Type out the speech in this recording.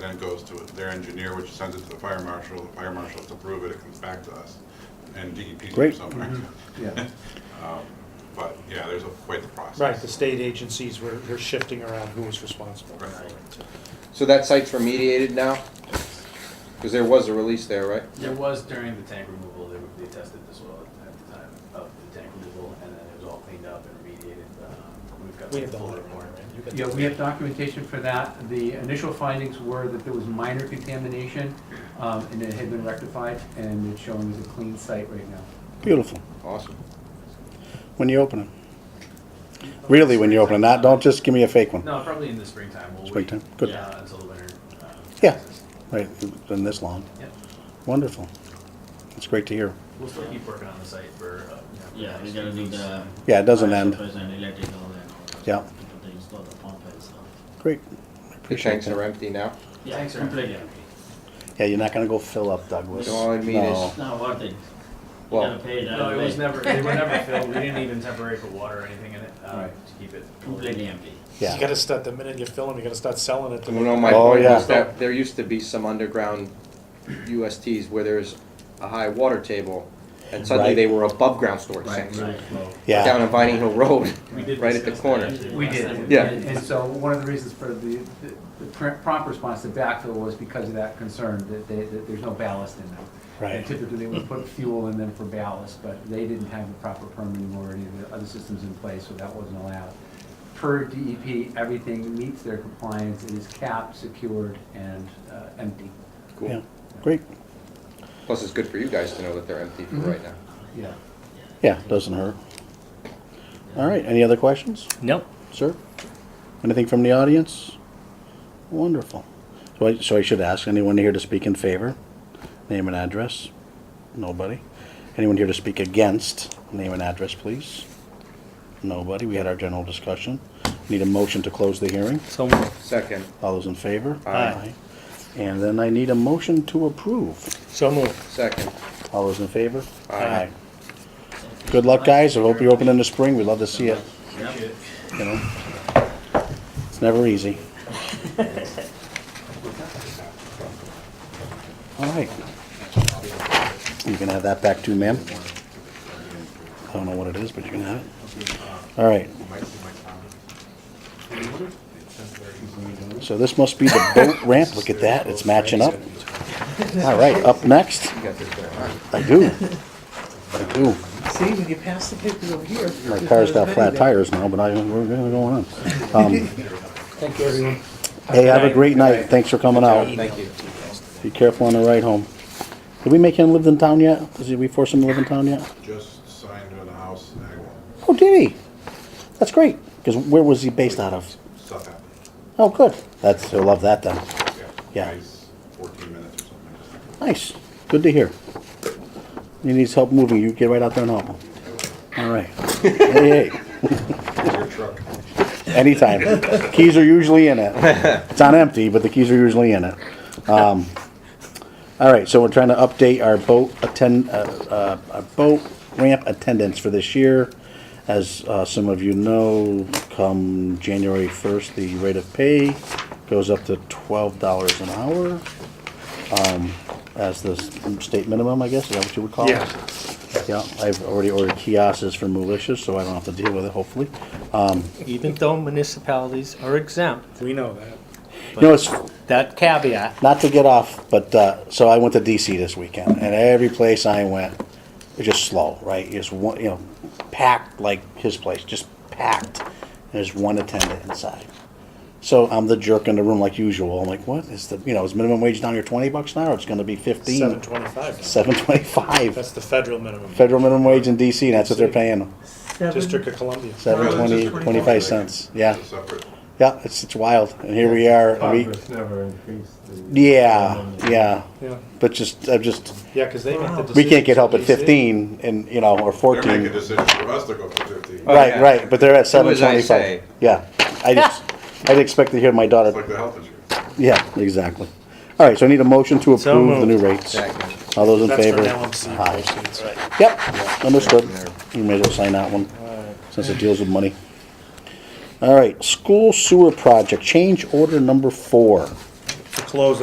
then it goes to their engineer, which sends it to the fire marshal, the fire marshal has to approve it, it comes back to us, and DEP's there Great. somewhere. Yeah. Um, But, yeah, there's a, quite the process. Right, the state agencies were, were shifting around who was responsible. Right. So that site's remediated now? Because there was a release there, right? There was during the tank removal, they, they tested the soil at the time of the tank removal, and then it was all cleaned up and remediated. Um, We've got We the have the full whole report. report. You got the- Yeah, we have documentation for that. The initial findings were that there was minor contamination, um, and it had been rectified, and it's showing as a clean site right now. Beautiful. Awesome. When you open it. Really, when you open it, not, don't just give me a fake one. No, probably in the springtime, we'll wait. Springtime, good. Yeah, until the winter. um, Yeah. process. Right, it's been this long. Yeah, Wonderful. It's great to hear. we'll still keep working on the site for, uh. you know, Yeah, for we the gotta next do few weeks. the. Yeah, it doesn't end. fire suppression and electrical and all that. Yeah. People, They install the pump and stuff. Great. I The Appreciate tanks are that. empty now? Yeah, Thanks, Aaron. completely. Yeah, you're not gonna go fill up Douglas. All I mean No. is- It's not worth it. You Oh. Well- gotta pay it No, either it was way. never, they were never filled, we didn't even temporarily put water or anything in it, uh, to Right. keep it. Completely empty. Yeah. You gotta start, the minute you fill them, you gotta start selling it to No, my Oh, point yeah. is that there used to be some underground USTs where there's a high water table, and suddenly Right. they were above ground storage tanks. Right. Yeah, Down in Vining Hill Road, We did right at the discuss that, corner. actually, We Last did. time we Yeah. did. And so one of the reasons for the, the- the pr- prompt response to backfill was because of that concern, that they, that there's no ballast in them. And right. Typically, they would put fuel in them for ballast, but they didn't have the proper permitting or any of the other systems in place, so that wasn't allowed. Per DEP, everything meets their compliance, it is capped, secured, and uh, empty. Yeah, Cool. great. Plus, it's good for you guys to know that they're empty for right now. Yeah. Yeah, doesn't hurt. All right, any other questions, Nope. sir? Anything from the audience? Wonderful. So I, so I should ask, anyone here to speak in favor? Name and address? Nobody. Anyone here to speak against? Name and address, please. Nobody. We had our general discussion. Need a motion to close the hearing. So moved. Second, All those in favor? Aye. And then I need a motion to approve. So moved. second. All those in favor? Aye. Good luck, guys. I hope you open in the spring. We'd love to see it, Appreciate it. you know? It's never easy. All right. You can have that back too, ma'am. I don't know what it is, but you can have it. All right. So this must be the boat ramp. Look at that. It's matching up. All right, up next. You got this going on. I do. I do. See, when you pass the papers over here. My there's car's got not as flat many there. tires now, but I, we're gonna go on. Um, Thank you, everyone. Hey, have a great night. Thanks for coming out. Thank you. Be careful on the ride home. Did we make him live in town yet? Did we force him to live in town yet? Just signed on the house, in Agawam, Oh, did he? That's great. Because where was he based out of? stuff happened. Oh, good. That's, he'll love that then. Yeah. Nice, Fourteen minutes or something. Nice. Good to hear. He needs help moving. You get right out there and help him. All right. Hey, hey. Just Your truck. Anytime. Keys are usually in it. It's on empty, but the keys are usually in it. Um, All right, so we're trying to update our boat attend, uh, uh, our boat ramp attendance for this year. As, uh, some of you know, come January first, the rate of pay goes up to twelve dollars an hour. Um, as the s- state minimum, I guess, is that what you would call it? Yeah. Yeah, I've already ordered kiosks for militias, so I don't have to deal with it, hopefully. Um, Even though municipalities are exempt, We know that. You know, it's that caveat, not to get off, but uh, so I went to DC this weekend, and every place I went, it was just slow, right? Just one, you know, packed like his place, just packed. And there's one attendant inside. So I'm the jerk in the room like usual. I'm like, what is the, you know, is minimum wage down here 20 bucks an hour? It's going to be 15, Seven twenty-five. 725. That's the federal minimum. Federal minimum wage in DC, and that's what they're paying, District of Columbia. 720, 25 cents. Yeah, It's a separate. yeah, it's, it's wild. And here we are. a week- never increased the. yeah, yeah. Yeah, But just, I'm just, yeah, because they make the decision. we can't get help at 15 and, you know, or They're making a 14. decision for us to go for fifteen. Oh, Right, yeah. right, but they're at Do as I 725. say. Yeah, I just, I'd expect to hear my It's like daughter, the health insurance. yeah, exactly. All right, so I need a motion to So approve the new moved. rates. Second. All those in That's for favor? LMC Aye. proceeds. Yep, understood. You may as well sign that one, since it deals with money. All right, school sewer project, change order number four. To close